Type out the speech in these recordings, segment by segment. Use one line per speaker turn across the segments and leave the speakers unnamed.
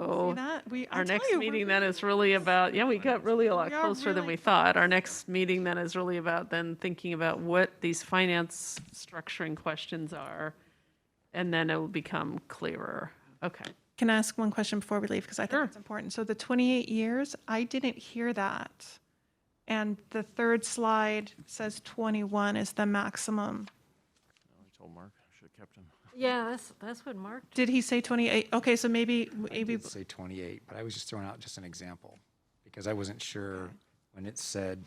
See
So
that? We, I
our
tell
next
you, we're
meeting
good.
then is really about, yeah, we got really a lot
We are
closer than
really-
we thought. Our next meeting then is really about then thinking about what these finance structuring questions are. And then it will become clearer. Okay.
Can I ask one question before we leave? Because I think it's important. So the 28 years, I didn't hear that. And the third slide says 21 is the maximum.
I told Mark, I should have kept him.
Yeah, that's, that's what Mark,
Did he say 28? Okay, so maybe,
I
maybe,
did say 28, but I was just throwing out just an example, because I wasn't sure when it said,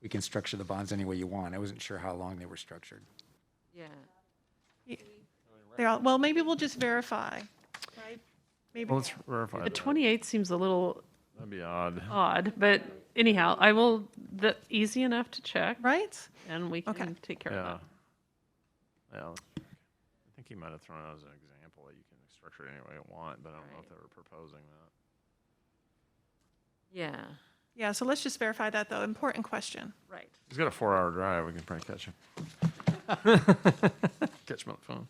we can structure the bonds any way you want, I wasn't sure how long they were structured.
yeah.
they all, well, maybe we'll just verify, right? Maybe,
Well, let's verify
The
that.
28 seems a little
That'd be odd.
odd, but anyhow, I will, that, easy enough to check
right?
and we
Okay.
can take care of
Yeah.
that.
Yeah. let's check. I think he might have thrown out as an example that you can structure it any way you want, but I don't know if they were proposing that.
Yeah,
Yeah, so let's just verify that though. Important question.
right.
He's got a four-hour drive. We can probably catch him. catch him on the phone.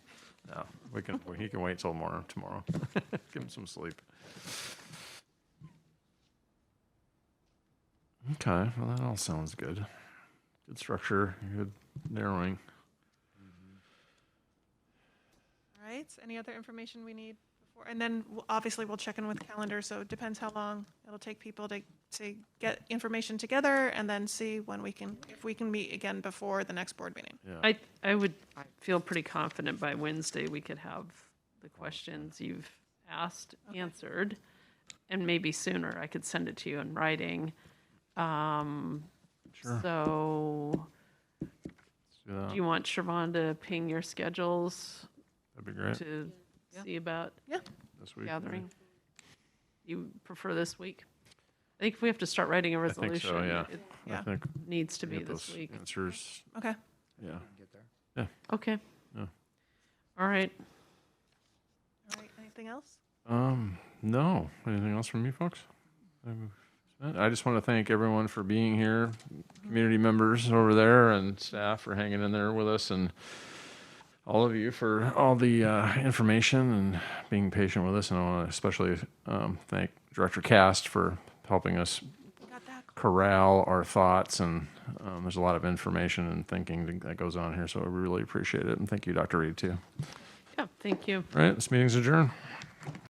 No, we can. He can wait till morning tomorrow. Give him some sleep. Okay. Well, that all sounds good. Good structure. Good narrowing.
All right, any other information we need before? And then w- obviously we'll check in with calendar, so it depends how long it'll take people to, to get information together and then see when we can, if we can meet again before the next board meeting.
I, I would feel pretty confident by Wednesday, we could have the questions you've asked answered. And maybe sooner, I could send it to you in writing. Um, So,
Let's do that.
do you want Siobhan to ping your schedules
That'd be great.
to see about
This week. maybe.
gathering? You prefer this week? I think if we have to start writing a
think so,
resolution,
yeah.
it
I
Yeah.
think
needs to
we
be
get
this
those
week.
answers.
Okay,
Yeah.
Get there.
Okay.
Yeah.
All right.
all right, anything else?
Um, no. Anything else from you folks? I'm spent. I just want to thank everyone for being here,
Mm-hmm.
community members over there and staff for hanging in there with us and all of you for all the uh, information and being patient with us. And I want to especially um, thank Director Cast for helping us
Got that?
corral our thoughts and um, there's a lot of information and thinking that goes on here. So I really appreciate it. And thank you, Dr. Reed, too.
Yeah, thank you.
All right. This meeting's adjourned.